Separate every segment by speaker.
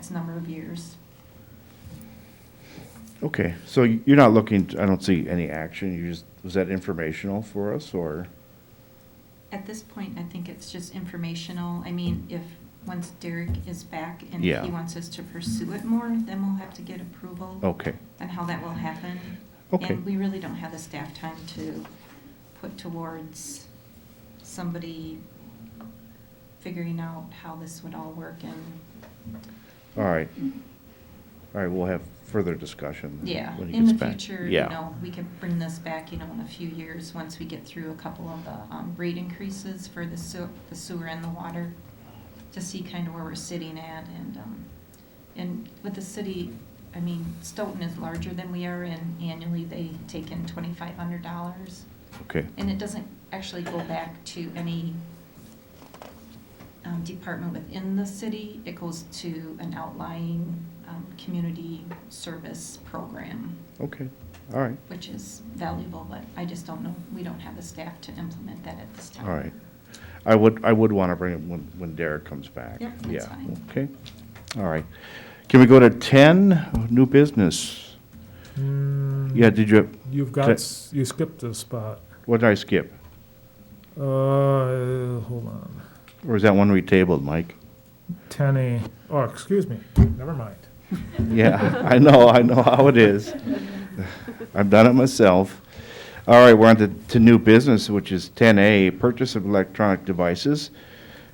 Speaker 1: next number of years.
Speaker 2: Okay, so y- you're not looking, I don't see any action, you just, was that informational for us, or?
Speaker 1: At this point, I think it's just informational. I mean, if, once Derek is back and
Speaker 2: Yeah.
Speaker 1: he wants us to pursue it more, then we'll have to get approval
Speaker 2: Okay,
Speaker 1: on how that will happen.
Speaker 2: Okay.
Speaker 1: And we really don't have the staff time to put towards somebody figuring out how this would all work and,
Speaker 2: all right. All right, we'll have further discussion.
Speaker 1: yeah.
Speaker 2: when he
Speaker 1: In the
Speaker 2: gets back.
Speaker 1: future, you
Speaker 2: Yeah.
Speaker 1: know, we could bring this back, you know, in a few years, once we get through a couple of the um, rate increases for the sewer, the sewer and the water, to see kind of where we're sitting at and, um, and with the city, I mean, Stoughton is larger than we are and annually they take in twenty-five hundred dollars.
Speaker 2: Okay,
Speaker 1: And it doesn't actually go back to any um, department within the city. It goes to an outlying um, community service program,
Speaker 2: okay, all right,
Speaker 1: which is valuable, but I just don't know, we don't have the staff to implement that at this time.
Speaker 2: all right. I would, I would want to bring it when, when Derek comes back.
Speaker 1: Yep, that's
Speaker 2: Yeah,
Speaker 1: fine.
Speaker 2: Okay, all right. Can we go to ten, new business? Yeah, did you,
Speaker 3: You've
Speaker 2: Okay.
Speaker 3: got, s- you skipped a spot.
Speaker 2: what did I skip?
Speaker 3: Uh, hold on.
Speaker 2: Or is that one we tabled, Mike?
Speaker 3: Ten A, oh, excuse me, never mind.
Speaker 2: Yeah, I know, I know how it is. I've done it myself. All right, we're on to, to new business, which is ten A, purchase of electronic devices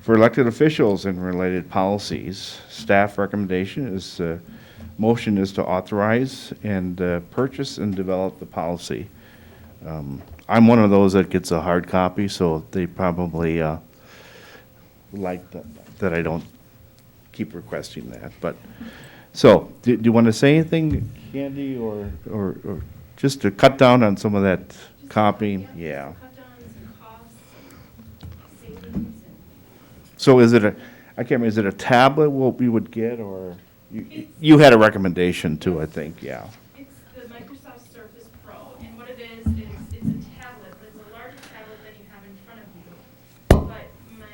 Speaker 2: for elected officials and related policies. Staff recommendation is, uh, motion is to authorize and, uh, purchase and develop the policy. Um, I'm one of those that gets a hard copy, so they probably, uh, like that, that I don't keep requesting that, but, so, do do you want to say anything, Candy, or, or, or just to cut down on some of that copying? Yeah.
Speaker 4: Cut down on some costs, savings,
Speaker 2: So is it a, I can't remember, is it a tablet what we would get, or? you- You had a recommendation too, I think, yeah.
Speaker 4: and it's the Microsoft Surface Pro, and what it is, is it's a tablet, but it's a larger tablet than you have in front of you. But my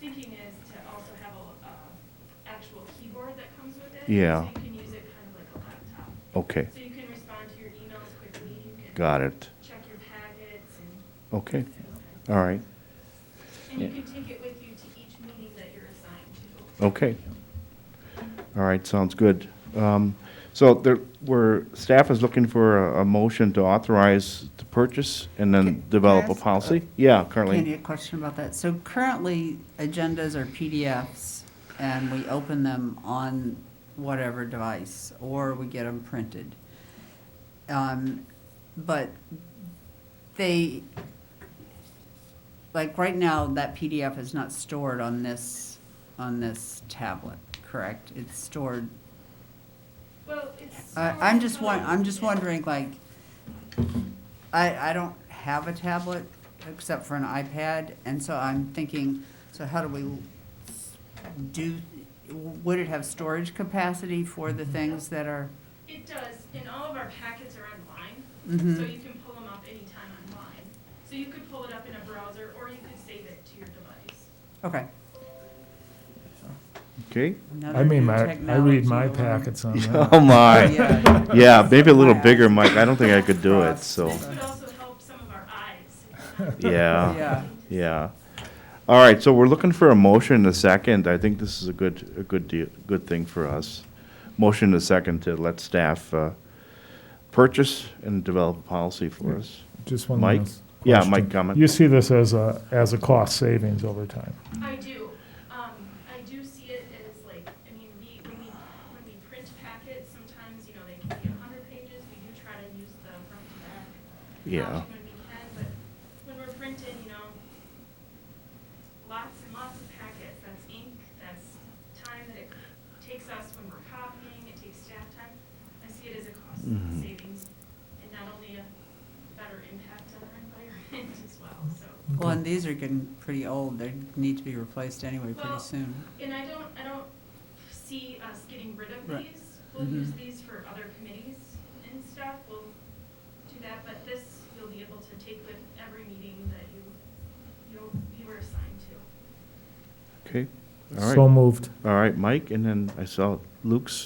Speaker 4: thinking is to also have a, uh, actual keyboard that comes with it.
Speaker 2: Yeah.
Speaker 4: So you can use it kind of like a laptop.
Speaker 2: Okay,
Speaker 4: So you can respond to your emails quickly, you can.
Speaker 2: got it.
Speaker 4: Check your packets and.
Speaker 2: Okay, all right,
Speaker 4: And you can take it with you to each meeting that you're assigned to.
Speaker 2: okay. All right, sounds good. Um, So there, we're, staff is looking for a, a motion to authorize the purchase and
Speaker 5: Can-
Speaker 2: then
Speaker 5: can I
Speaker 2: develop a
Speaker 5: ask, uh,
Speaker 2: policy? Yeah,
Speaker 5: Candy,
Speaker 2: currently,
Speaker 5: a question about that. So currently, agendas are PDFs, and we open them on whatever device, or we get them printed. Um, But they, like, right now, that PDF is not stored on this, on this tablet, correct? It's stored,
Speaker 4: Well, it's.
Speaker 5: I, I'm just
Speaker 4: one.
Speaker 5: won, I'm just wondering, like, I, I don't have a tablet except for an iPad, and so I'm thinking, so how do we do, would it have storage capacity for the things that are?
Speaker 4: It does, and all of our packets are online, so
Speaker 5: Mhm.
Speaker 4: you can pull them up anytime online. So you could pull it up in a browser, or you could save it to your device.
Speaker 5: Okay.
Speaker 2: okay?
Speaker 5: Another
Speaker 3: I mean,
Speaker 5: new
Speaker 3: my, I read
Speaker 5: technology
Speaker 3: my
Speaker 5: to learn.
Speaker 3: packets on
Speaker 2: Oh,
Speaker 3: that.
Speaker 2: my.
Speaker 5: Yeah.
Speaker 2: Yeah, maybe a little bigger, Mike. I don't think I could do it, so,
Speaker 4: This would also help some of our eyes. if we're not-
Speaker 2: yeah,
Speaker 5: Yeah.
Speaker 2: yeah. All right, so we're looking for a motion and a second. I think this is a good, a good deal, good thing for us. Motion and a second to let staff, uh, purchase and develop a policy for us.
Speaker 3: Just one
Speaker 2: Mike?
Speaker 3: last
Speaker 2: Yeah, Mike,
Speaker 3: question.
Speaker 2: comment.
Speaker 3: You see this as a, as a cost savings over time.
Speaker 4: I do. Um, I do see it as like, I mean, we, when we, when we print packets, sometimes, you know, they can be a hundred pages. We do try to use the front to back
Speaker 2: Yeah.
Speaker 4: option when we can, but when we're printing, you know, lots and lots of packets, that's ink, that's time that it takes us when we're copying, it takes staff time. I see it as a cost
Speaker 2: Mhm.
Speaker 4: savings and not only a better impact on our environment as well, so.
Speaker 5: Well, and these are getting pretty old. They need to be replaced anyway pretty
Speaker 4: Well,
Speaker 5: soon.
Speaker 4: And I don't, I don't see us getting rid of
Speaker 5: Right.
Speaker 4: these. We'll
Speaker 5: Mhm.
Speaker 4: use these for other committees and stuff, we'll do that, but this you'll be able to take with every meeting that you, you, you were assigned to.
Speaker 2: Okay, all
Speaker 3: So
Speaker 2: right.
Speaker 3: moved.
Speaker 2: All right, Mike, and then I saw Luke's